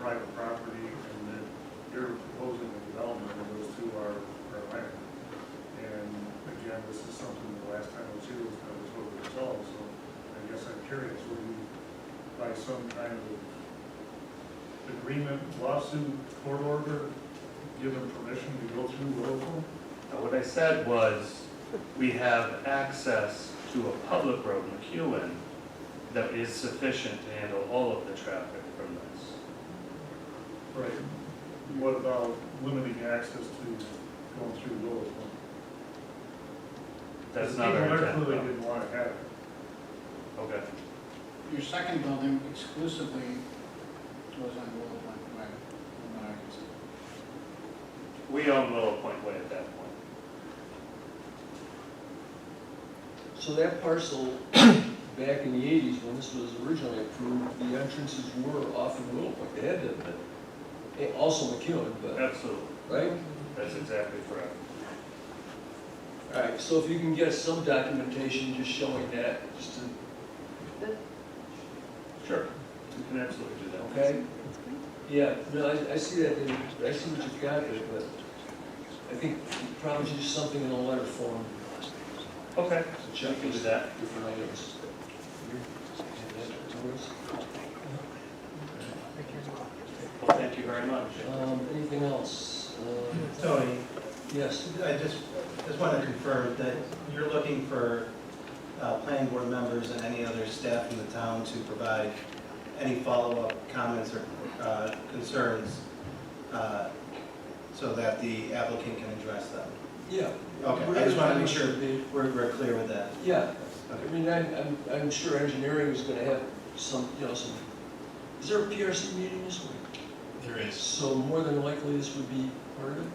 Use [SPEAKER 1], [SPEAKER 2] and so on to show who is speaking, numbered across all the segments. [SPEAKER 1] private property and that you're proposing a development, and those two are, are land. And again, this is something the last time I was here was kind of totally resolved, so I guess I'm curious, will you, by some kind of agreement, lawsuit, court order, give them permission to go through local?
[SPEAKER 2] Now, What I said was, we have access to a public road, McEwen, that is sufficient to handle all of the traffic from this.
[SPEAKER 1] Right. What about limiting access to going through local?
[SPEAKER 2] That's not our
[SPEAKER 1] Because People there clearly
[SPEAKER 2] intent.
[SPEAKER 1] didn't want to have it.
[SPEAKER 2] though. Okay,
[SPEAKER 3] Your second building exclusively was on Willow Point Way, from what I can see.
[SPEAKER 2] we own Willow Point Way at that point.
[SPEAKER 4] So that parcel, back in the eighties, when this was originally approved, the entrances were off of Little Point, they had to have been. Eh, Also McEwen, but,
[SPEAKER 2] Absolutely,
[SPEAKER 4] right?
[SPEAKER 2] that's exactly correct.
[SPEAKER 4] Alright, so if you can get some documentation just showing that, just to,
[SPEAKER 2] Sure. You can absolutely do that.
[SPEAKER 4] okay? Yeah, no, I, I see that, in- I see what you've got there, but I think probably just something in a letter form,
[SPEAKER 2] Okay,
[SPEAKER 4] to
[SPEAKER 2] we
[SPEAKER 4] check
[SPEAKER 2] can do
[SPEAKER 4] these
[SPEAKER 2] that.
[SPEAKER 4] different items.
[SPEAKER 2] Well, thank you very much.
[SPEAKER 4] Um, anything else? Uh,
[SPEAKER 5] Tony,
[SPEAKER 4] Yes,
[SPEAKER 5] I just, just want to confirm that you're looking for uh, planning board members and any other staff in the town to provide any follow-up comments or uh, concerns uh, so that the applicant can address them.
[SPEAKER 4] yeah.
[SPEAKER 5] Okay, I just want to make sure we're, we're clear with that.
[SPEAKER 4] Yeah, I
[SPEAKER 5] Okay.
[SPEAKER 4] mean, I'm, I'm, I'm sure engineering is gonna have some, you know, some, is there a PRC meeting this week?
[SPEAKER 6] There is,
[SPEAKER 4] So more than likely this would be part of it?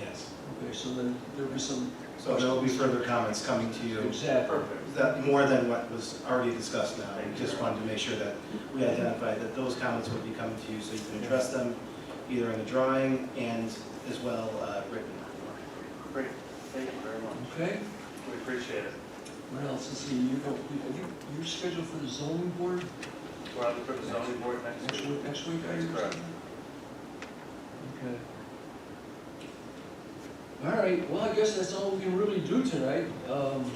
[SPEAKER 6] yes.
[SPEAKER 4] Okay, so then there'll be some,
[SPEAKER 5] So there will be further comments coming to you,
[SPEAKER 4] exactly.
[SPEAKER 2] Perfect.
[SPEAKER 5] that, more than what was already discussed now.
[SPEAKER 2] Thank you.
[SPEAKER 5] Just wanted to make sure that we identified that those comments would be coming to you so you can address them either in the drawing and as well uh, written.
[SPEAKER 2] Great, thank you very much.
[SPEAKER 4] Okay,
[SPEAKER 2] We appreciate it.
[SPEAKER 4] what else is he, you, go- you- I think you're scheduled for the zoning board
[SPEAKER 2] We're out for the zoning board next
[SPEAKER 4] next
[SPEAKER 2] week.
[SPEAKER 4] week, next week, are you?
[SPEAKER 2] That's correct.
[SPEAKER 4] Okay. All right, well, I guess that's all we can really do tonight. Um,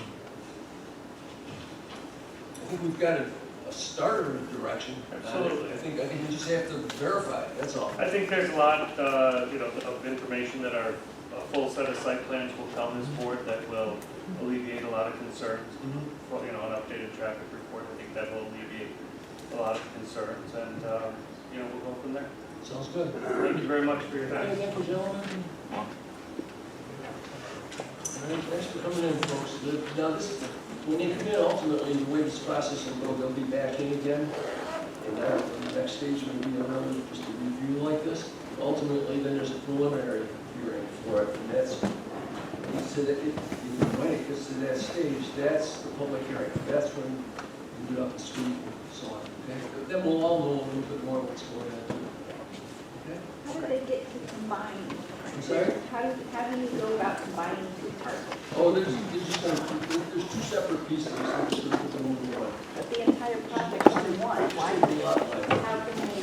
[SPEAKER 4] I think we've got a, a starter in direction. on it.
[SPEAKER 2] Absolutely.
[SPEAKER 4] I think, I think we just have to verify it, that's all.
[SPEAKER 2] I think there's a lot, uh, you know, of information that our uh, full set of site plans will tell this board that will alleviate a lot of concerns.
[SPEAKER 4] Mhm.
[SPEAKER 2] Well, You know, an updated traffic report, I think that will alleviate a lot of concerns, and, uh, you know, we'll go from there.
[SPEAKER 4] Sounds good.
[SPEAKER 2] Thank you very much for your time.
[SPEAKER 4] Okay, thank you, gentlemen. All right, thanks for coming in, folks. The- Now, this, when they come in, ultimately, the way this process will go, they'll be back in again. And uh, the next stage will be another, just a review like this. Ultimately, then there's a preliminary hearing for it, and that's, so that it, it- when it gets to that stage, that's the public hearing. That's when you get up and speak and so on, okay? Then we'll all know a little bit more what's going on, okay?
[SPEAKER 7] How do they get to combine?
[SPEAKER 4] I'm sorry?
[SPEAKER 7] How do, how do you go about combining two parcels?
[SPEAKER 4] Oh, there's, there's just, gonna- there- there's two separate pieces, I'm just gonna put them in one.
[SPEAKER 7] But the entire project is in one. Why,
[SPEAKER 4] It's gonna be a lot like-
[SPEAKER 7] how can they,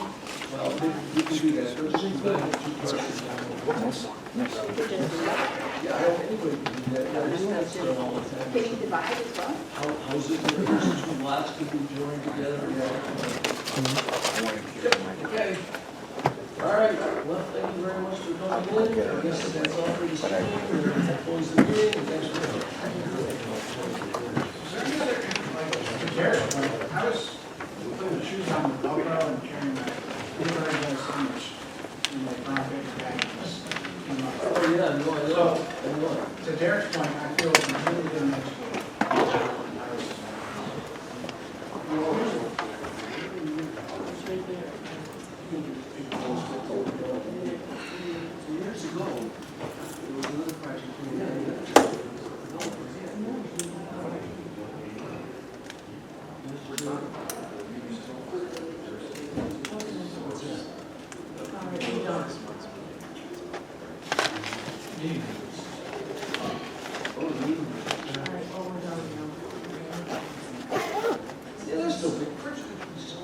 [SPEAKER 4] Well, we- we can do that, but it's just gonna have two parts.
[SPEAKER 7] you could just, divide.
[SPEAKER 4] Yeah, I hope anybody can do that, yeah, there's not sort of all the time.
[SPEAKER 7] can you divide as well?
[SPEAKER 4] How, how's it, that there's two lots could be joined together, yeah. Okay. All right, well, thank you very much for coming in, I guess that's all for this evening. Oh,